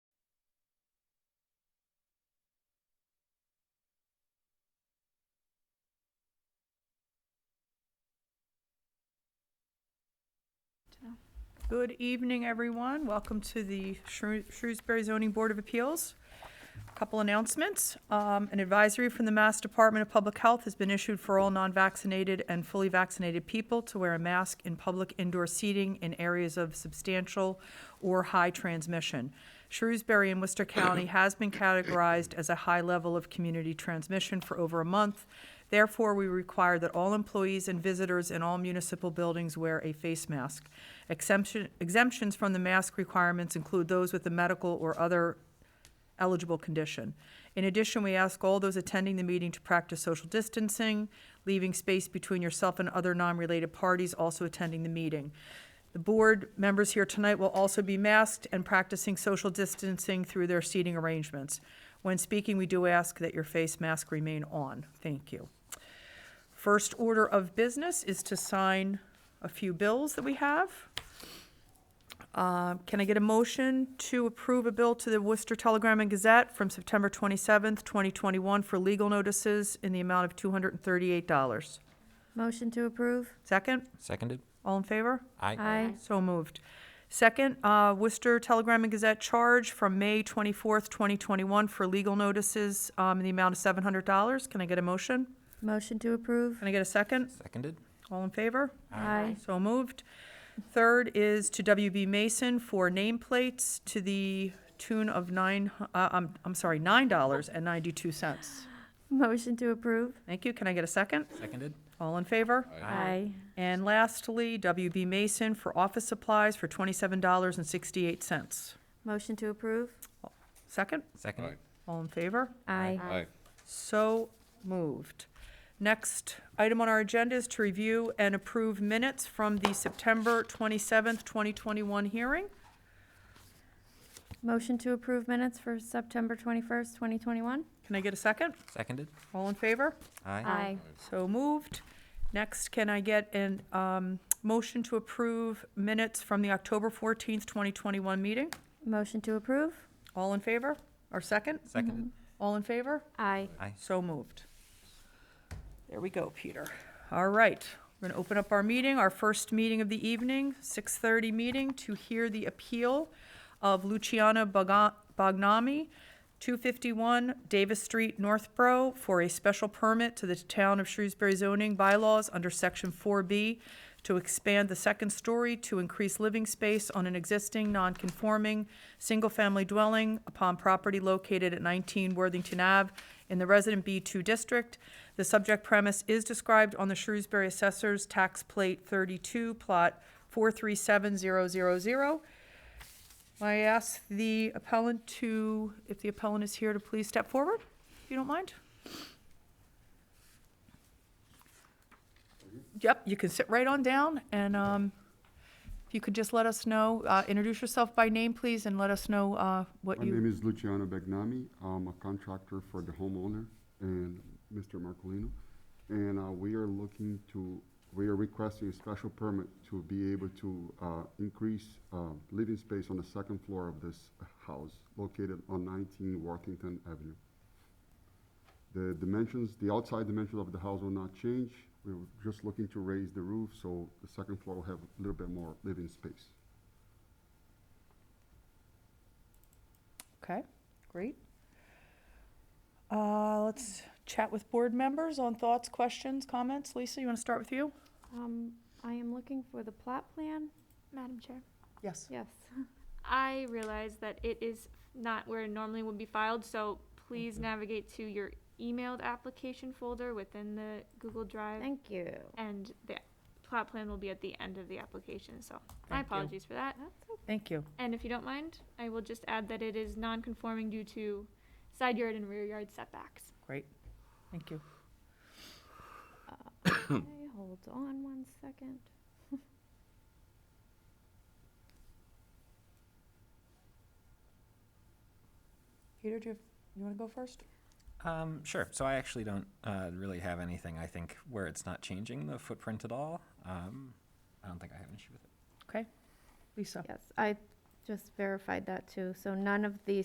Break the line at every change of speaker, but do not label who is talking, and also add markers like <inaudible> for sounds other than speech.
Good evening, everyone. Welcome to the Shrew- Shrewsbury Zoning Board of Appeals. Couple announcements. Um, An advisory from the Mass Department of Public Health has been issued for all non-vaccinated and fully vaccinated people to wear a mask in public indoor seating in areas of substantial or high transmission. Shrewsbury and Worcester County has been categorized as a high level of community transmission for over a month. Therefore, we require that all employees and visitors in all municipal buildings wear a face mask. Exemption, exemptions from the mask requirements include those with a medical or other eligible condition. In addition, we ask all those attending the meeting to practice social distancing, leaving space between yourself and other non-related parties also attending the meeting. The board members here tonight will also be masked and practicing social distancing through their seating arrangements. When speaking, we do ask that your face mask remain on. Thank you. First order of business is to sign a few bills that we have. Uh, Can I get a motion to approve a bill to the Worcester Telegram and Gazette from September 27th, 2021 for legal notices in the amount of $238?
Motion to approve?
Second?
Seconded?
All in favor?
Aye.
So moved. Second, uh, Worcester Telegram and Gazette charge from May 24th, 2021 for legal notices um, in the amount of $700. Can I get a motion?
Motion to approve?
Can I get a second?
Seconded?
All in favor?
Aye.
So moved. Third is to WB Mason for nameplates to the tune of nine, hu- uh, I'm, I'm sorry, nine dollars and ninety-two cents.
Motion to approve?
Thank you. Can I get a second?
Seconded?
All in favor?
Aye.
And lastly, WB Mason for office supplies for twenty-seven dollars and sixty-eight cents.
Motion to approve?
Second?
Seconded?
All in favor?
Aye.
Aye.
So moved. Next item on our agenda is to review and approve minutes from the September twenty-seventh, twenty twenty-one hearing.
Motion to approve minutes for September 21st, 2021?
Can I get a second?
Seconded?
All in favor?
Aye.
So moved. Next, can I get an, um, motion to approve minutes from the October fourteenth, twenty twenty-one meeting?
Motion to approve?
All in favor? Or second?
Seconded?
All in favor?
Aye.
So moved. There we go, Peter. All right, we're gonna open up our meeting, our first meeting of the evening, six thirty meeting to hear the appeal of Luciana Baga- Bagnami, two fifty-one Davis Street, Northborough, for a special permit to the town of Shrewsbury zoning bylaws under section four B to expand the second story to increase living space on an existing non-conforming single-family dwelling upon property located at 19 Worthington Ave in the Resident B2 District. The subject premise is described on the Shrewsbury Assessor's Tax Plate 32, Plot 437000. I ask the appellant to, if the appellant is here, to please step forward, if you don't mind. Yep, you can sit right on down, and um, if you could just let us know, uh, introduce yourself by name, please, and let us know uh, what
My
you.
name is Luciano Bagnami. I'm a contractor for the homeowner and Mr. Marcolino. And uh, we are looking to, we are requesting a special permit to be able to uh, increase uh, living space on the second floor of this house located on 19 Worthington Avenue. The dimensions, the outside dimensions of the house will not change. We were just looking to raise the roof, so the second floor will have a little bit more living space.
Okay, great. Uh, Let's chat with board members on thoughts, questions, comments. Lisa, you want to start with you?
Um, I am looking for the plot plan.
Madam Chair.
Yes.
Yes.
I realize that it is not where it normally would be filed, so please navigate to your emailed application folder within the Google Drive.
Thank you.
And the plot plan will be at the end of the application, so
Thank
my
you.
apologies for that.
<clears throat>
Thank you.
And if you don't mind, I will just add that it is non-conforming due to side yard and rear yard setbacks.
Great. Thank you.
Okay, hold on one second.
Peter, do you, you want to go first?
Um, sure. So I actually don't, uh, really have anything, I think, where it's not changing the footprint at all. Um, I don't think I have an issue with it.
Okay. Lisa?
Yes, I just verified that too. So none of the